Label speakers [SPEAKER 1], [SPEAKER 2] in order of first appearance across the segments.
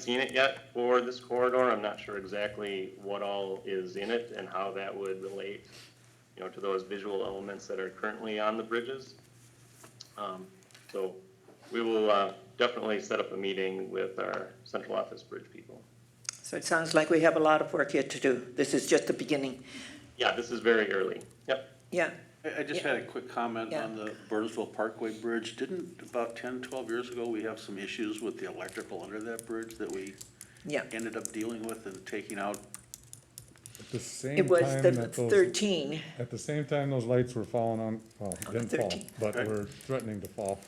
[SPEAKER 1] seen it yet for this corridor. I'm not sure exactly what all is in it and how that would relate, you know, to those visual elements that are currently on the bridges. Um, So we will uh, definitely set up a meeting with our central office bridge people.
[SPEAKER 2] So it sounds like we have a lot of work yet to do. This is just the beginning.
[SPEAKER 1] Yeah, this is very early. Yep.
[SPEAKER 2] Yeah,
[SPEAKER 3] I, I just
[SPEAKER 2] Yeah.
[SPEAKER 3] had a quick comment
[SPEAKER 2] Yeah.
[SPEAKER 3] on the Burnsville Parkway Bridge. Didn't about 10, 12 years ago, we have some issues with the electrical under that bridge that we
[SPEAKER 2] yeah.
[SPEAKER 3] ended up dealing with and taking out?
[SPEAKER 4] At the same
[SPEAKER 2] It was
[SPEAKER 4] time
[SPEAKER 2] the
[SPEAKER 4] that those,
[SPEAKER 2] thirteen,
[SPEAKER 4] at the same time those lights were falling on, well, didn't fall,
[SPEAKER 2] 13.
[SPEAKER 4] but
[SPEAKER 3] Right.
[SPEAKER 4] were threatening to fall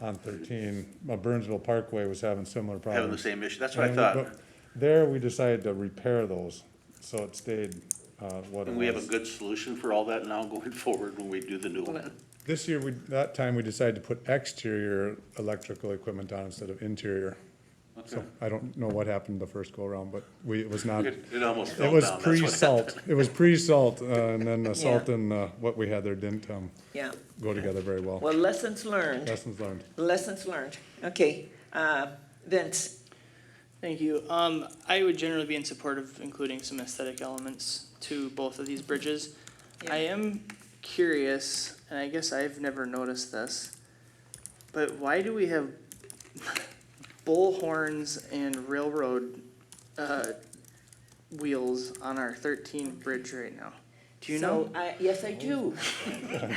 [SPEAKER 4] on thirteen. Uh, Burnsville Parkway was having similar problems.
[SPEAKER 3] Having the same issue. That's what I
[SPEAKER 4] And we-
[SPEAKER 3] thought.
[SPEAKER 4] but There, we decided to repair those, so it stayed, uh, what it
[SPEAKER 3] And we have a
[SPEAKER 4] was.
[SPEAKER 3] good solution for all that now going forward when we do the new one.
[SPEAKER 4] This year, we, that time, we decided to put exterior electrical equipment on instead of interior. So
[SPEAKER 3] Okay.
[SPEAKER 4] I don't know what happened the first go-around, but we, it was not,
[SPEAKER 3] It
[SPEAKER 4] it
[SPEAKER 3] it almost fell down.
[SPEAKER 4] was
[SPEAKER 3] That's what
[SPEAKER 4] pre-salt, it was pre-salt, uh, and then the salt and, uh, what we had there didn't, um,
[SPEAKER 2] yeah.
[SPEAKER 4] go together very well.
[SPEAKER 2] Well, lessons learned,
[SPEAKER 4] Lessons learned.
[SPEAKER 2] lessons learned. Okay, uh, Vince,
[SPEAKER 5] Thank you. Um, I would generally be in support of including some aesthetic elements to both of these bridges. I am curious, and I guess I've never noticed this, but why do we have bull horns and railroad, uh, wheels on our thirteen bridge right now? Do you know?
[SPEAKER 2] so I, yes, I do.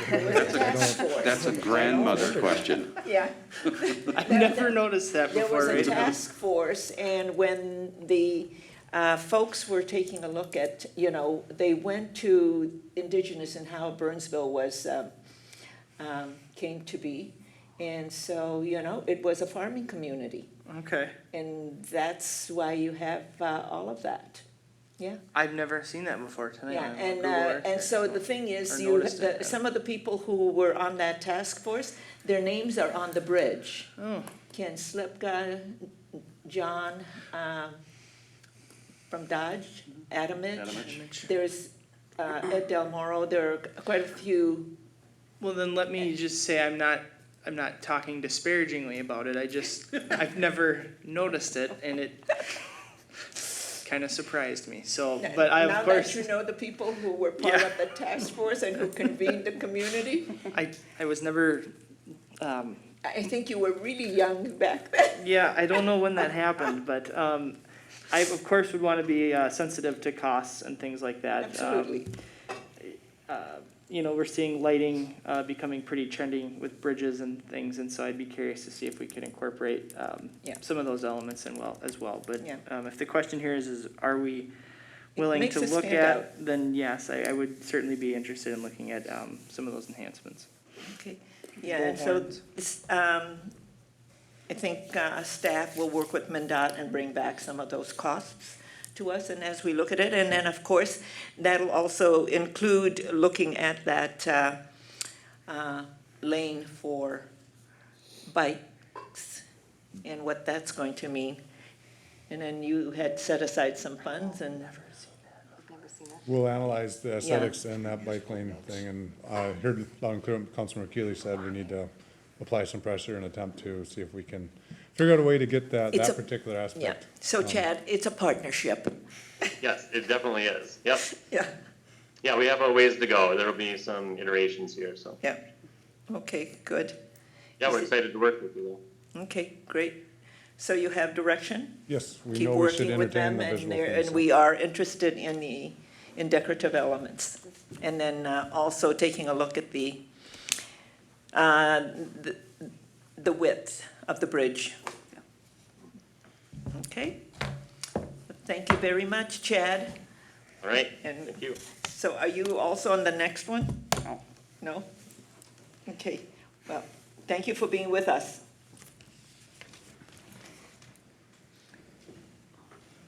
[SPEAKER 2] That's
[SPEAKER 6] That's a grandmother question.
[SPEAKER 2] Yeah.
[SPEAKER 5] I've never noticed that
[SPEAKER 2] There
[SPEAKER 5] before
[SPEAKER 2] was a
[SPEAKER 5] right now.
[SPEAKER 2] task force, and when the uh, folks were taking a look at, you know, they went to Indigenous and how Burnsville was, um, um, came to be. And so, you know, it was a farming community,
[SPEAKER 5] Okay,
[SPEAKER 2] and that's why you have uh, all of that. Yeah,
[SPEAKER 5] I've never seen that before tonight.
[SPEAKER 2] yeah,
[SPEAKER 5] on
[SPEAKER 2] and,
[SPEAKER 5] Google
[SPEAKER 2] uh,
[SPEAKER 5] Earth.
[SPEAKER 2] and so the thing is,
[SPEAKER 5] Or
[SPEAKER 2] you,
[SPEAKER 5] noticed it,
[SPEAKER 2] the-
[SPEAKER 5] yeah.
[SPEAKER 2] some of the people who were on that task force, their names are on the bridge.
[SPEAKER 5] Oh,
[SPEAKER 2] Ken Slipka, John, um, from Dodge, Adamich.
[SPEAKER 3] Adamich.
[SPEAKER 2] There's, uh, Ed Del Moro, there are quite a few,
[SPEAKER 5] Well, then let me just say I'm not, I'm not talking disparagingly about it. I just, I've never noticed it and it kind of surprised me. So, but I,
[SPEAKER 2] now that
[SPEAKER 5] of course,
[SPEAKER 2] you know the people who were part
[SPEAKER 5] Yeah.
[SPEAKER 2] of the task force and who convened the community.
[SPEAKER 5] I, I was never, um,
[SPEAKER 2] I think you were really young back then.
[SPEAKER 5] yeah, I don't know when that happened, but, um, I of course would want to be, uh, sensitive to costs and things like that. Um,
[SPEAKER 2] Absolutely.
[SPEAKER 5] you know, we're seeing lighting uh, becoming pretty trendy with bridges and things, and so I'd be curious to see if we could incorporate um,
[SPEAKER 2] Yeah.
[SPEAKER 5] some of those elements in well as well. But
[SPEAKER 2] Yeah.
[SPEAKER 5] um, if the question here is, is are we willing
[SPEAKER 2] makes
[SPEAKER 5] to
[SPEAKER 2] us
[SPEAKER 5] look
[SPEAKER 2] stand
[SPEAKER 5] at,
[SPEAKER 2] out.
[SPEAKER 5] then yes, I, I would certainly be interested in looking at um, some of those enhancements.
[SPEAKER 2] Okay, yeah, and so,
[SPEAKER 5] Bullhorns.
[SPEAKER 2] this, um, I think, uh, staff will work with MinDOT and bring back some of those costs to us, and as we look at it, and then, of course, that'll also include looking at that, uh, uh, lane for bikes and what that's going to mean. And then you had set aside some funds and,
[SPEAKER 4] We'll analyze the aesthetics and that bike lane thing, and I heard loud and clear what Councilmember Keely said we need to apply some pressure and attempt to see if we can figure out a way to get that,
[SPEAKER 2] It's
[SPEAKER 4] that
[SPEAKER 2] a-
[SPEAKER 4] particular
[SPEAKER 2] yeah.
[SPEAKER 4] aspect.
[SPEAKER 2] So
[SPEAKER 4] Um,
[SPEAKER 2] Chad, it's a partnership,
[SPEAKER 1] Yes, it definitely is. Yep.
[SPEAKER 2] yeah.
[SPEAKER 1] Yeah, we have a ways to go. There will be some iterations here, so.
[SPEAKER 2] Yeah, okay, good.
[SPEAKER 1] Yeah, we're excited to work with you though.
[SPEAKER 2] Okay, great. So you have direction?
[SPEAKER 4] Yes, we
[SPEAKER 2] Keep
[SPEAKER 4] know we should
[SPEAKER 2] working with
[SPEAKER 4] entertain
[SPEAKER 2] them
[SPEAKER 4] the
[SPEAKER 2] and
[SPEAKER 4] visual
[SPEAKER 2] they're, and
[SPEAKER 4] things.
[SPEAKER 2] we are interested in the, in decorative elements. And then uh, also taking a look at the, uh, the the width of the bridge. Okay? Thank you very much, Chad.
[SPEAKER 1] All right,
[SPEAKER 2] And-
[SPEAKER 1] thank you.
[SPEAKER 2] So are you also on the next one? Oh,
[SPEAKER 3] No.
[SPEAKER 2] No? Okay, well, thank you for being with us.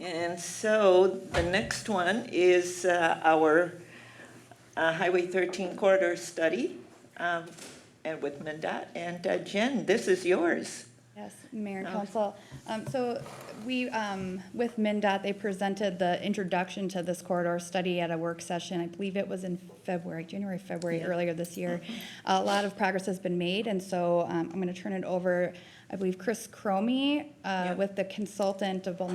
[SPEAKER 2] And so the next one is uh, our uh, Highway 13 corridor study um, and with MinDOT. And uh, Jen, this is yours.
[SPEAKER 7] Yes, Mayor and Council. Um, so we, um, with MinDOT, they presented the introduction to this corridor study at a work session. I believe it was in February, January, February, earlier this year. A lot of progress has been made, and so, um, I'm gonna turn it over, I believe, Chris Cromie, uh, with the consultant of Vulnerable